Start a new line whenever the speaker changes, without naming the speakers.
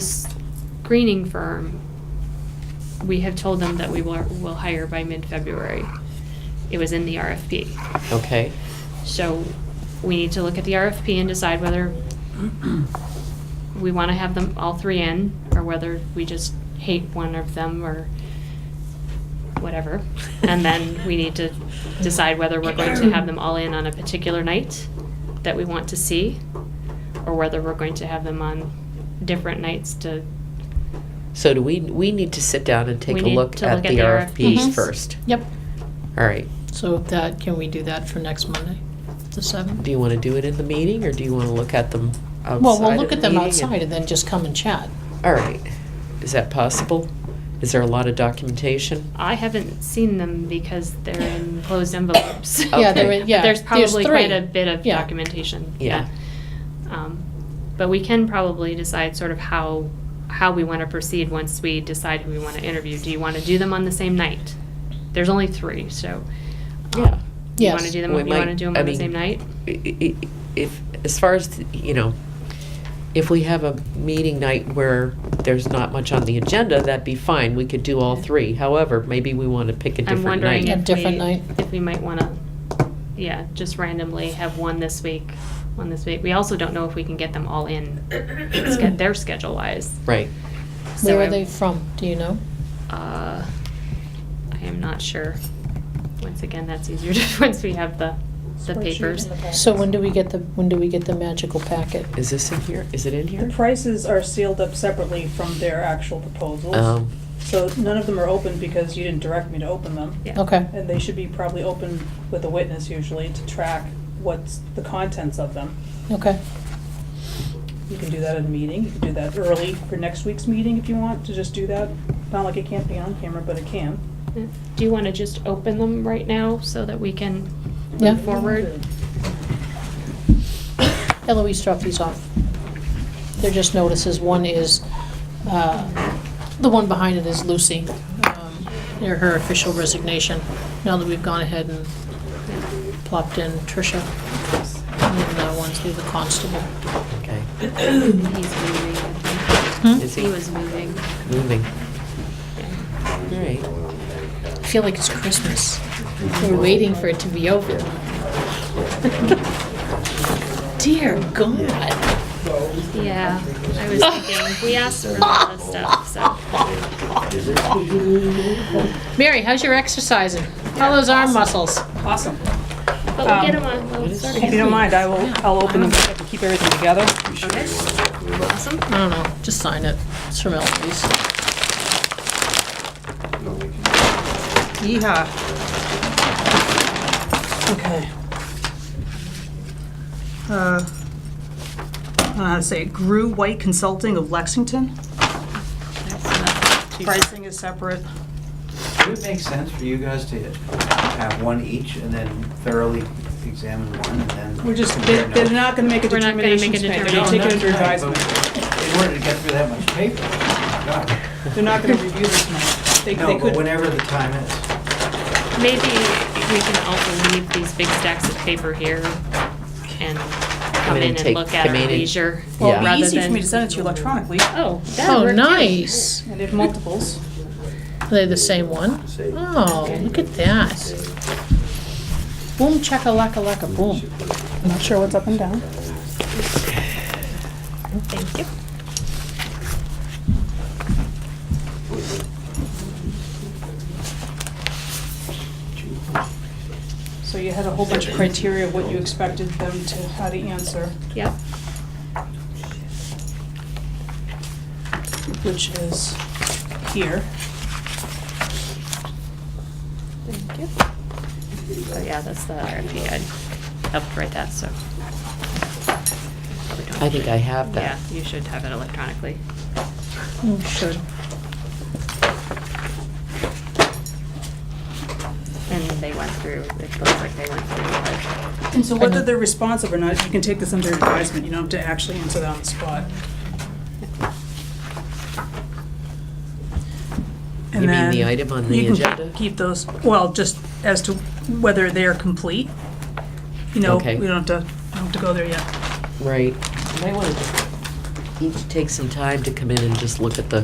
screening firm, we have told them that we will, will hire by mid-February. It was in the RFP.
Okay,
So we need to look at the RFP and decide whether we want to have them, all three in, or whether we just hate one of them or whatever. And then we need to decide whether we're going to have them all in on a particular night that we want to see, or whether we're going to have them on different nights to,
so do we, we need to sit down and take
We
a
need
look
to
at
look
the RFPs
Mhm.
first?
Yep,
All right,
so that, can we do that for next Monday, the seventh?
do you want to do it in the meeting, or do you want to look at them outside
Well, we'll
of
look
the
at them
meeting
outside and then just come and chat.
and- All right, is that possible? Is there a lot of documentation?
I haven't seen them because they're in closed envelopes.
Yeah, there,
Okay.
were- yeah.
There's probably quite
three.
a bit of
Yeah.
documentation.
Yeah.
Um, But we can probably decide sort of how, how we want to proceed once we decide who we want to interview. Do you want to do them on the same night? There's only three, so. um,
Yeah.
You want to
Yes.
do them,
We
you want to
might-
do them
I
on the
mean-
same night?
I- i- If, as far as, you know, if we have a meeting night where there's not much on the agenda, that'd be fine, we could do all three. However, maybe we want to pick a
I'm
different
wondering
night.
A
if
different night.
we, if we might want to, yeah, just randomly have one this week, one this week. We also don't know if we can get them all in, sched- their schedule wise.
Right,
So
Where
I-
are they from, do you know?
Uh, I am not sure. Once again, that's easier to, once we have the, the papers.
So when do we get the, when do we get the magical packet?
is this in here, is it in
The
here?
prices are sealed up separately from their actual proposals.
Um,
So none of them are open because you didn't direct me to open them.
Yeah.
Okay,
And they should be probably open with a witness usually to track what's the contents of them.
okay,
You can do that at a meeting, you can do that early for next week's meeting if you want, to just do that. Not like it can't be on camera, but it can.
Do you want to just open them right now so that we can
Yeah.
move forward?
Eloise dropped these off. They're just notices, one is, uh, the one behind it is Lucy, um, near her official resignation, now that we've gone ahead and plopped in Tricia, and then that one's through the constable.
okay,
He's moving, I
Hmm?
think.
is he
He was moving.
moving?
Yeah.
All right.
I feel like it's Christmas. We're waiting for it to be over. Dear God.
Yeah, I was thinking, we asked for a lot of stuff, so.
Mary, how's your exercising? How those arm muscles?
Awesome.
But we'll get
Um,
them on, we'll start
If you
again.
don't mind, I will, I'll open them up and keep everything together.
Okay. Awesome.
I don't know, just sign it. It's from Eloise.
Yeehaw. Okay. Uh, uh, Say, Grew White Consulting of Lexington.
That's not too-
Pricing is separate.
Would it make sense for you guys to have one each and then thoroughly examine one and then?
We're just,
compare
they're they're
notes?
not going to make a
We're not gonna make a
determination tonight. They're going to
determination.
take it under
Right, but
advisement.
In order to get through that much paper, God.
They're not going to review this tonight. They- They
No, but
could,
whenever the time is.
Maybe we can also leave these big stacks of paper here and come in
in and
and
take-
look at
come in
our
and-
leisure.
well, it'd
Yeah.
be
rather
easy for me
than-
to send it to you electronically.
Oh, that
Oh,
worked too.
nice.
And if multiples,
Are they the same one? Oh, look at that. Boom chakalaka laka boom.
I'm not sure what's up and down.
Thank you.
So you had a whole bunch of criteria of what you expected them to, how to answer.
Yep.
which is here.
Thank you. Oh, yeah, that's the RFP. I helped write that, so. probably don't
I think I have
Yeah,
that.
you should have it electronically.
Oh, sure.
And they went through, it looks like they went through like
And so whether they're responsive or not, you can take this under advisement, you don't have to actually answer that on the spot. And
You mean
then
the item on
you
the
can
agenda?
Keep those, well, just as to whether they're complete. You know,
Okay.
we don't have to, don't have to go there yet.
Right. You might want to each take some time to come in and just look at the